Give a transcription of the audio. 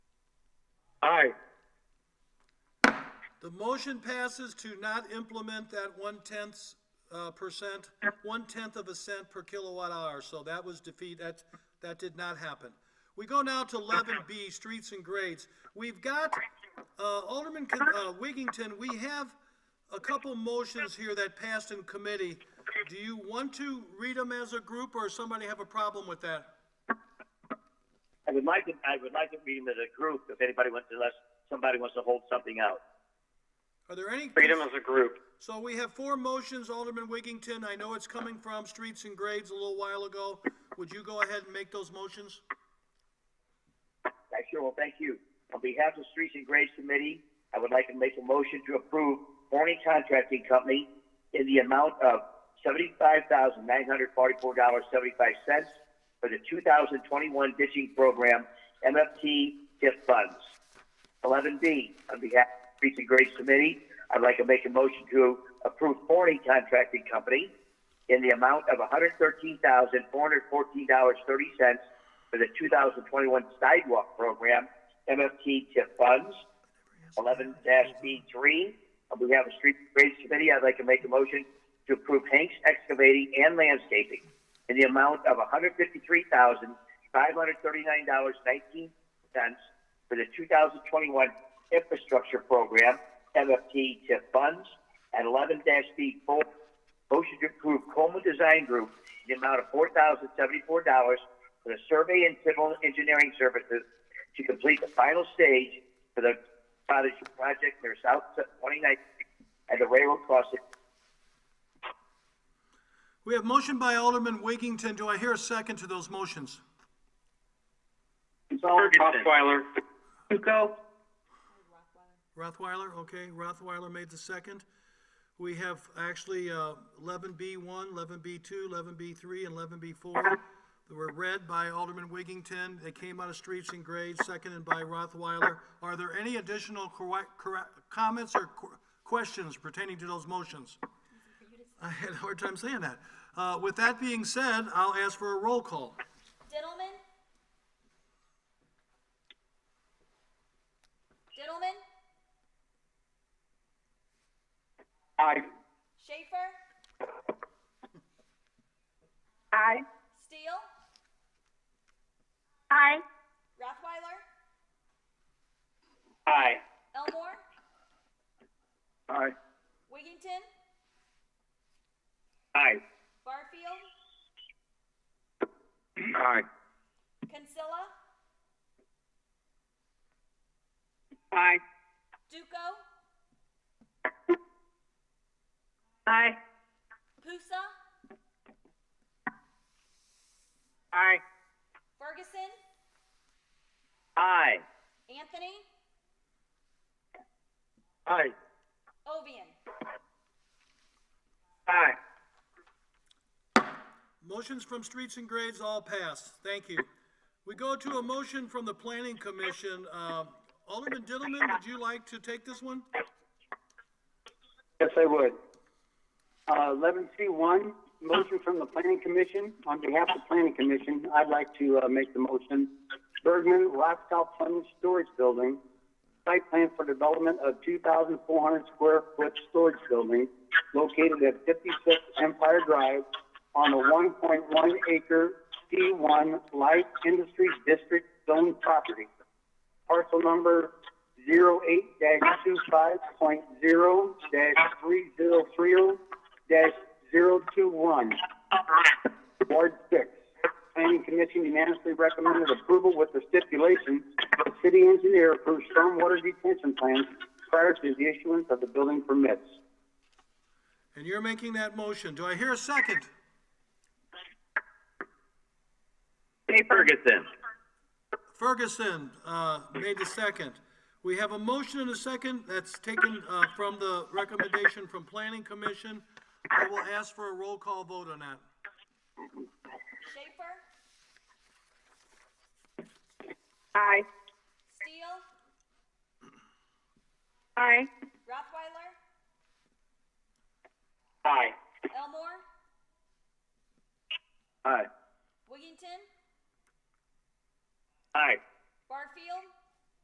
Aye. The motion passes to not implement that one-tenth, uh, percent, one-tenth of a cent per kilowatt hour, so that was defeat, that, that did not happen. We go now to eleven B, streets and grades. We've got, uh, Alderman, Con- uh, Wiggington, we have a couple motions here that passed in committee. Do you want to read them as a group, or somebody have a problem with that? I would like to, I would like to read them as a group if anybody wants, unless somebody wants to hold something out. Are there any? Read them as a group. So we have four motions, Alderman Wiggington. I know it's coming from Streets and Grades a little while ago. Would you go ahead and make those motions? I sure will, thank you. On behalf of the Streets and Grades Committee, I would like to make a motion to approve Horning Contracting Company in the amount of seventy-five thousand nine hundred forty-four dollars seventy-five cents for the two thousand twenty-one ditching program MFT TIF funds. Eleven B, on behalf of the Streets and Grades Committee, I'd like to make a motion to approve Horning Contracting Company in the amount of $113,414.30 for the 2021 sidewalk program, MFT TIP funds, 11-B3. On behalf of Street Grades Committee, I'd like to make a motion to approve Hanks Excavating and Landscaping in the amount of $153,539.19 for the 2021 infrastructure program, MFT TIP funds, and 11-B4, Motion to approve Coleman Design Group in the amount of four thousand seventy-four dollars for the survey and civil engineering services to complete the final stage for the cottage project near South Twenty-Ninth and the railroad crossing. We have motion by Alderman Wiggington. Do I hear a second to those motions? Osweiler. Duco, Rothweiler, okay, Rothweiler made the second. We have actually uh, eleven B one, eleven B two, eleven B three, and eleven B four. They were read by Alderman Wiggington. They came out of Streets and Grades, seconded by Rothweiler. Are there any additional correct, correct, comments or qu- questions pertaining to those motions? I had a hard time saying that. Uh, with that being said, I'll ask for a roll call. Diddleman? Diddleman? Aye. Schaefer? aye. Steele? Aye. Rothweiler? Aye. Elmore? Aye. Wiggington? Aye. Barfield? Aye. Consilla? Aye. Duco? Aye. Pusa? Aye. Ferguson? Aye. Anthony? Aye. Ovian? Aye. Motions from Streets and Grades all passed. Thank you. We go to a motion from the Planning Commission. Um, Alderman Dillman, would you like to take this one? Yes, I would. Uh, eleven C one, motion from the planning commission. On behalf of the planning commission, I'd like to, uh, make the motion. Bergman Lifestyle Plumbing Storage Building, site plan for development of two thousand four hundred square foot storage building located at fifty-six Empire Drive on the one point one acre C one light industry district zone property parcel number 08-25.0-3030-021. Ward 6. Planning Commission unanimously recommended approval with the stipulation that the city engineer approves stormwater detention plans prior to the issuance of the building permits. And you're making that motion. Do I hear a second? Jay Ferguson. Ferguson, uh, made the second. We have a motion and a second that's taken, uh, from the recommendation from Planning Commission. I will ask for a roll call vote on that. Schaefer? Aye. Steele? Aye. Rothweiler? Aye. Elmore? Aye. Wiggington? Aye. Barfield?